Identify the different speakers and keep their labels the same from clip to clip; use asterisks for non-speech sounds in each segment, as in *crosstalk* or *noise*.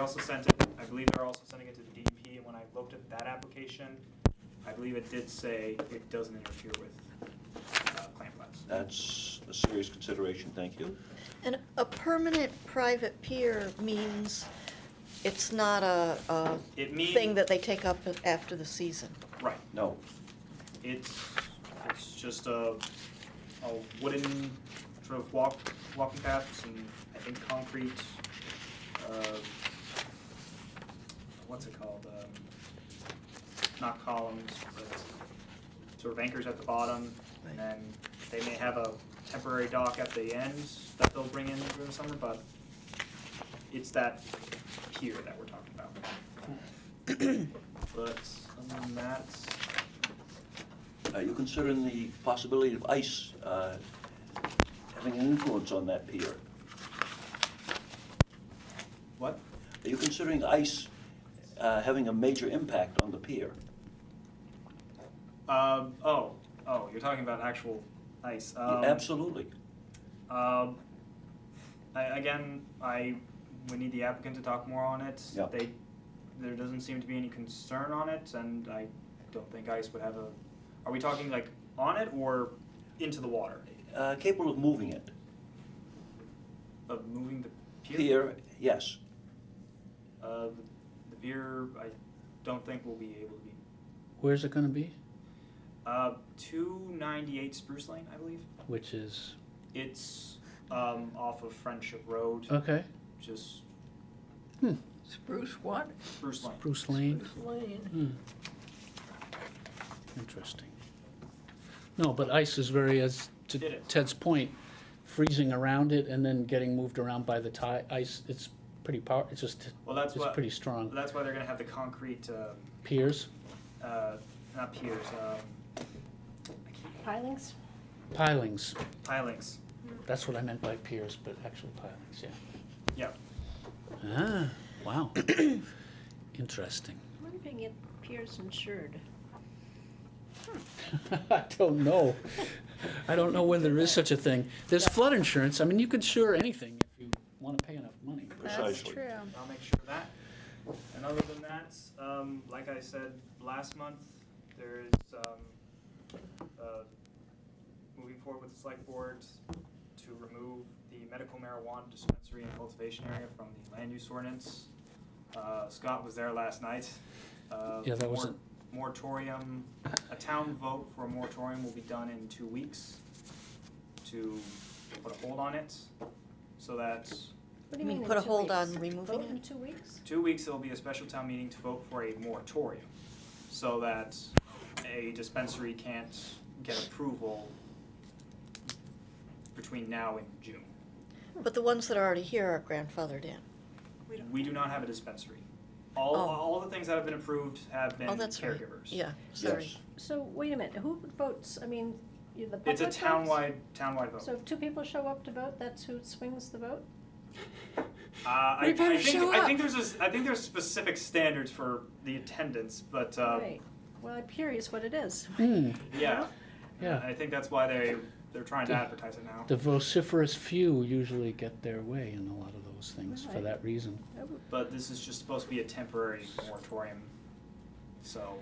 Speaker 1: I also sent it, I believe they're also sending it to the DEP, and when I looked at that application, I believe it did say it doesn't interfere with uh, clam flats.
Speaker 2: That's a serious consideration, thank you.
Speaker 3: And a permanent private pier means it's not a, a
Speaker 1: It means-
Speaker 3: thing that they take up after the season.
Speaker 1: Right,
Speaker 2: No,
Speaker 1: it's, it's just a, a wooden sort of walk, walking paths and I think concrete, uh, what's it called? Um, Not columns, but sort of anchors at the bottom. And
Speaker 3: Right.
Speaker 1: then they may have a temporary dock at the end that they'll bring in during the summer, but it's that pier that we're talking about. But other than that,
Speaker 2: are you uh, considering the possibility of ice uh, having an influence on that pier?
Speaker 1: What?
Speaker 2: Are you considering ice uh, having a major impact on the pier?
Speaker 1: Um, oh, oh, you're talking about actual ice. Um,
Speaker 2: Absolutely.
Speaker 1: Um, I, again, I we need the applicant to talk more on it.
Speaker 2: Yeah.
Speaker 1: They, there doesn't seem to be any concern on it, and I don't think ice would have a. Are we talking like on it or into the water
Speaker 2: Uh, Capable of moving it.
Speaker 1: of moving the pier?
Speaker 2: Pier, yes.
Speaker 1: Uh, the, the pier, I don't think we'll be able to be.
Speaker 4: Where's it gonna be?
Speaker 1: Uh, two ninety eight Spruce Lane, I believe.
Speaker 4: Which is,
Speaker 1: It's um, off of Friendship Road,
Speaker 4: okay, Hmm,
Speaker 1: just
Speaker 5: Spruce what?
Speaker 1: Spruce Lane.
Speaker 4: Bruce Lane.
Speaker 5: Spruce Lane.
Speaker 4: Hmm. Interesting. No, but ice is very, as to
Speaker 1: It is.
Speaker 4: Ted's point, freezing around it and then getting moved around by the tide, ice, it's pretty power, it's just,
Speaker 1: Well, that's
Speaker 4: it's
Speaker 1: what-
Speaker 4: pretty
Speaker 1: Well,
Speaker 4: strong.
Speaker 1: That's why they're gonna have the concrete, uh,
Speaker 4: Piers,
Speaker 1: uh, not piers, um,
Speaker 6: Pilings?
Speaker 4: pilings,
Speaker 1: pilings,
Speaker 4: that's what I meant by piers, but actual pilings, yeah.
Speaker 1: yeah.
Speaker 4: Ah, wow. *coughs* Interesting.
Speaker 6: I'm wondering if Pierce insured.
Speaker 4: *laughs* I don't know. I don't know whether there is such a thing. There's flood insurance. I mean, you could insure anything if you want to pay enough money.
Speaker 2: Precisely.
Speaker 1: I'll make sure of that. And other than that, um, like I said last month, there is, um, uh, moving forward with the select board to remove the medical marijuana dispensary and cultivation area from the land use ordinance. Uh, Scott was there last night. Uh,
Speaker 4: Yeah, that
Speaker 1: mor-
Speaker 4: wasn't-
Speaker 1: Moratorium, a town vote for a moratorium will be done in two weeks to put a hold on it, so that
Speaker 6: What do
Speaker 3: You
Speaker 6: you
Speaker 3: mean
Speaker 6: mean
Speaker 3: put a
Speaker 6: in two
Speaker 3: hold on
Speaker 6: weeks?
Speaker 3: removing
Speaker 6: Vote in
Speaker 3: it?
Speaker 6: two weeks?
Speaker 1: two weeks, there'll be a special town meeting to vote for a moratorium, so that a dispensary can't get approval between now and June.
Speaker 3: But the ones that are already here are grandfathered in.
Speaker 1: We do not have a dispensary. All,
Speaker 3: Oh.
Speaker 1: all the things that have been approved have been
Speaker 3: Oh, that's right.
Speaker 1: caregivers.
Speaker 3: Yeah, sorry.
Speaker 2: Yes.
Speaker 6: So wait a minute, who votes? I mean, you- the public
Speaker 1: It's a
Speaker 6: votes?
Speaker 1: townwide, townwide vote.
Speaker 6: So if two people show up to vote, that's who swings the vote?
Speaker 1: Uh, I,
Speaker 5: We
Speaker 1: I
Speaker 5: better
Speaker 1: think,
Speaker 5: show
Speaker 1: I
Speaker 5: up.
Speaker 1: think there's a s I think there's specific standards for the attendance, but, uh,
Speaker 6: Right. Well, I'm curious what it is.
Speaker 4: Hmm,
Speaker 1: yeah.
Speaker 4: yeah.
Speaker 1: I think that's why they, they're trying to advertise it now.
Speaker 4: The vociferous few usually get their way in a lot of those things for
Speaker 6: Right.
Speaker 4: that reason.
Speaker 1: But this is just supposed to be a temporary moratorium, so.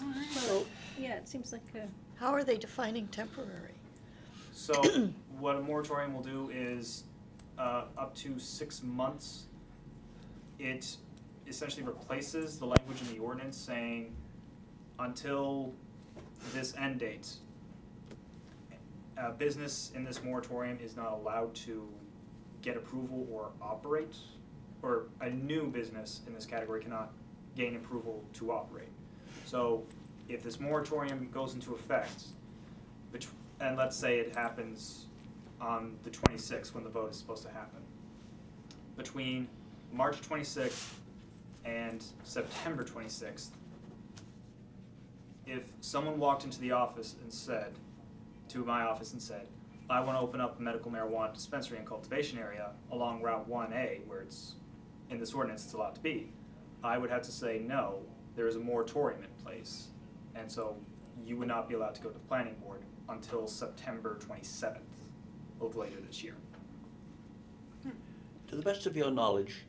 Speaker 6: Well, yeah, it seems like a.
Speaker 3: How are they defining temporary?
Speaker 1: So *clears throat* what a moratorium will do is, uh, up to six months, it essentially replaces the language in the ordinance saying until this end date, uh, business in this moratorium is not allowed to get approval or operate, or a new business in this category cannot gain approval to operate. So if this moratorium goes into effect, bet- and let's say it happens on the 26th when the vote is supposed to happen. Between March 26th and September 26th, if someone walked into the office and said, to my office and said, I want to open up a medical marijuana dispensary and cultivation area along Route 1A, where it's in this ordinance it's allowed to be, I would have to say, no, there is a moratorium in place. And so you would not be allowed to go to the planning board until September 27th of later this year.
Speaker 2: To the best of your knowledge,